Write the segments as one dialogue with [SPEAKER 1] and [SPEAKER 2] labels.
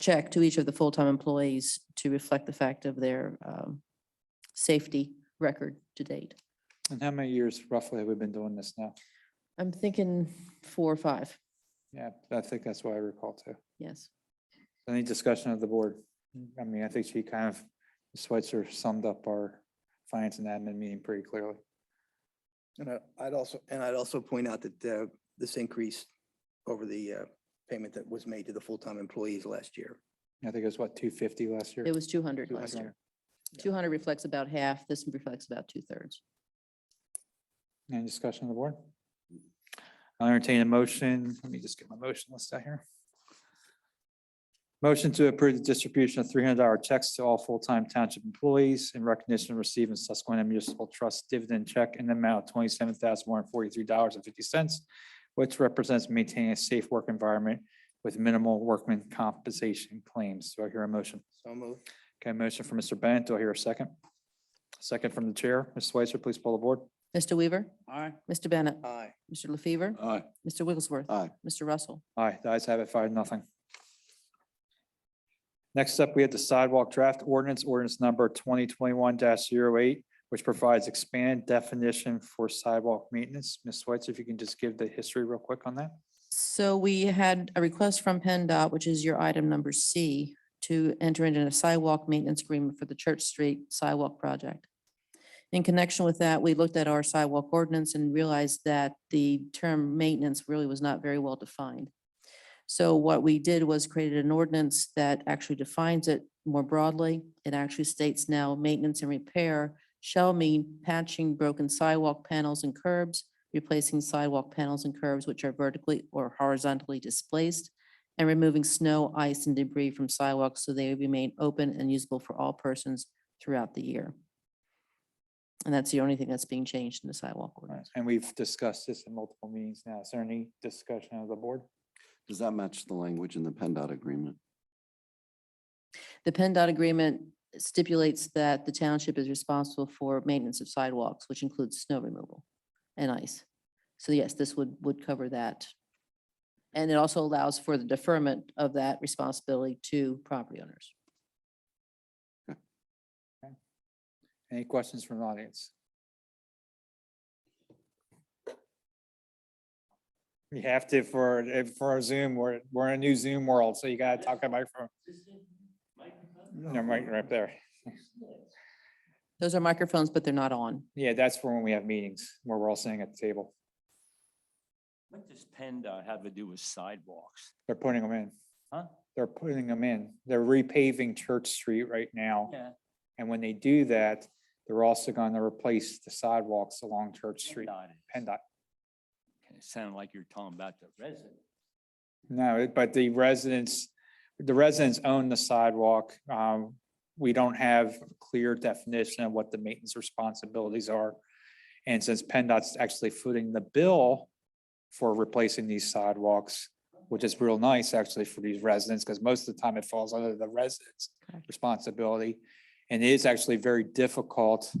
[SPEAKER 1] check to each of the full-time employees to reflect the fact of their um, safety record to date.
[SPEAKER 2] And how many years roughly have we been doing this now?
[SPEAKER 1] I'm thinking four or five,
[SPEAKER 2] Yeah, I think that's what I recall too.
[SPEAKER 1] yes.
[SPEAKER 2] Any discussion of the board? I mean, I think she kind of, Ms. Switzer summed up our finance and admin meeting pretty clearly.
[SPEAKER 3] And I- I'd also, and I'd also point out that uh, this increase over the uh, payment that was made to the full-time employees last year.
[SPEAKER 2] I think it was what, two fifty last year?
[SPEAKER 1] It was two hundred last
[SPEAKER 2] 200.
[SPEAKER 1] year. Two hundred reflects about half, this reflects about two-thirds.
[SPEAKER 2] Any discussion on the board? I'll entertain a motion. Let me just get my motion list out here. Motion to approve the distribution of three hundred dollar checks to all full-time township employees in recognition of receiving Susquehanna Municipal Trust dividend check in the amount of twenty-seven thousand one hundred forty-three dollars and fifty cents, which represents maintaining a safe work environment with minimal workman compensation claims. Do I hear a motion?
[SPEAKER 3] So moved.
[SPEAKER 2] Okay, motion from Mr. Bennett. Do I hear a second? Second from the chair. Ms. Switzer, please pull the board.
[SPEAKER 1] Mr. Weaver,
[SPEAKER 3] Aye.
[SPEAKER 1] Mr. Bennett,
[SPEAKER 3] Aye.
[SPEAKER 1] Mr. LaFever,
[SPEAKER 4] Aye.
[SPEAKER 1] Mr. Wigglesworth.
[SPEAKER 4] Aye.
[SPEAKER 1] Mr. Russell.
[SPEAKER 2] Aye, the ayes have it, five, nothing. Next up, we have the sidewalk draft ordinance, ordinance number twenty twenty-one 8 which provides expanded definition for sidewalk maintenance. Ms. Switzer, if you can just give the history real quick on that.
[SPEAKER 1] So we had a request from PennDOT, which is your item number C, to enter into a sidewalk maintenance agreement for the Church Street sidewalk project. In connection with that, we looked at our sidewalk ordinance and realized that the term maintenance really was not very well defined. So what we did was created an ordinance that actually defines it more broadly. It actually states now maintenance and repair shall mean patching broken sidewalk panels and curbs, replacing sidewalk panels and curves which are vertically or horizontally displaced, and removing snow, ice, and debris from sidewalks so they remain open and usable for all persons throughout the year. And that's the only thing that's being changed in the sidewalk ordinance.
[SPEAKER 2] And we've discussed this in multiple meetings now. Is there any discussion of the board?
[SPEAKER 4] Does that match the language in the PennDOT agreement?
[SPEAKER 1] The PennDOT agreement stipulates that the township is responsible for maintenance of sidewalks, which includes snow removal and ice. So yes, this would, would cover that. And it also allows for the deferment of that responsibility to property owners.
[SPEAKER 2] Any questions from the audience? You have to for, if- for our Zoom, we're, we're in a new Zoom world, so you gotta talk about microphone. No, right, right there.
[SPEAKER 1] Those are microphones, but they're not on.
[SPEAKER 2] Yeah, that's for when we have meetings where we're all sitting at the table.
[SPEAKER 5] What does PennDOT have to do with sidewalks?
[SPEAKER 2] They're putting them in.
[SPEAKER 5] Huh?
[SPEAKER 2] They're putting them in. They're repaving Church Street right now.
[SPEAKER 5] Yeah.
[SPEAKER 2] And when they do that, they're also gonna replace the sidewalks along Church Street.
[SPEAKER 5] PennDOT is.
[SPEAKER 2] PennDOT.
[SPEAKER 5] It sounded like you're talking about the resident.
[SPEAKER 2] No, it- but the residents, the residents own the sidewalk. Um, We don't have a clear definition of what the maintenance responsibilities are. And since PennDOT's actually footing the bill for replacing these sidewalks, which is real nice actually for these residents, because most of the time it falls under the residents'
[SPEAKER 1] Correct.
[SPEAKER 2] responsibility. And it is actually very difficult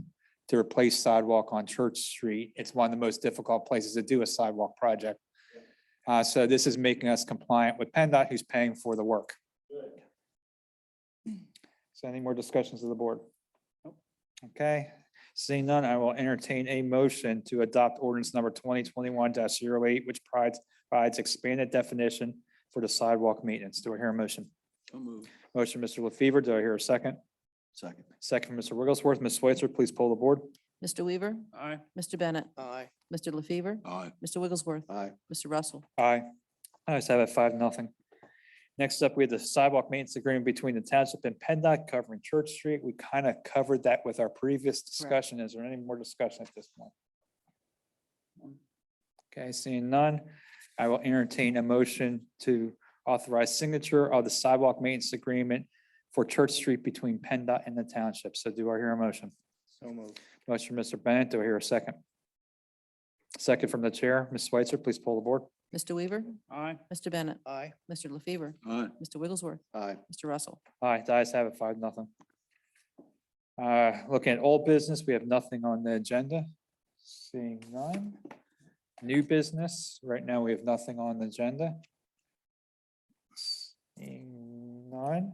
[SPEAKER 2] to replace sidewalk on Church Street. It's one of the most difficult places to do a sidewalk project. Uh, so this is making us compliant with PennDOT, who's paying for the work. So any more discussions of the board? Okay, seeing none, I will entertain a motion to adopt ordinance number twenty twenty-one 8 which provides, provides expanded definition for the sidewalk maintenance. Do I hear a motion?
[SPEAKER 4] So moved.
[SPEAKER 2] Motion, Mr. LaFever, do I hear a second?
[SPEAKER 4] Second.
[SPEAKER 2] Second, from Mr. Wigglesworth, Ms. Switzer, please pull the board.
[SPEAKER 1] Mr. Weaver,
[SPEAKER 5] Aye.
[SPEAKER 1] Mr. Bennett,
[SPEAKER 3] Aye.
[SPEAKER 1] Mr. LaFever,
[SPEAKER 4] Aye.
[SPEAKER 1] Mr. Wigglesworth,
[SPEAKER 4] Aye.
[SPEAKER 1] Mr. Russell.
[SPEAKER 2] Aye. I just have it five, nothing. Next up, we have the sidewalk maintenance agreement between the township and PennDOT covering Church Street. We kind of covered that with our previous discussion. Is there any more discussion at this point? Okay, seeing none, I will entertain a motion to authorize signature of the sidewalk maintenance agreement for Church Street between PennDOT and the township. So do I hear a motion?
[SPEAKER 3] So moved.
[SPEAKER 2] Motion, Mr. Bennett, do I hear a second? Second from the chair, Ms. Switzer, please pull the board.
[SPEAKER 1] Mr. Weaver,
[SPEAKER 5] Aye.
[SPEAKER 1] Mr. Bennett,
[SPEAKER 3] Aye.
[SPEAKER 1] Mr. LaFever,
[SPEAKER 4] Aye.
[SPEAKER 1] Mr. Wigglesworth,
[SPEAKER 4] Aye.
[SPEAKER 1] Mr. Russell.
[SPEAKER 2] Aye, the ayes have it, five, nothing. Uh, looking at all business, we have nothing on the agenda. Seeing none. New business, right now we have nothing on the agenda. Seeing none. All right.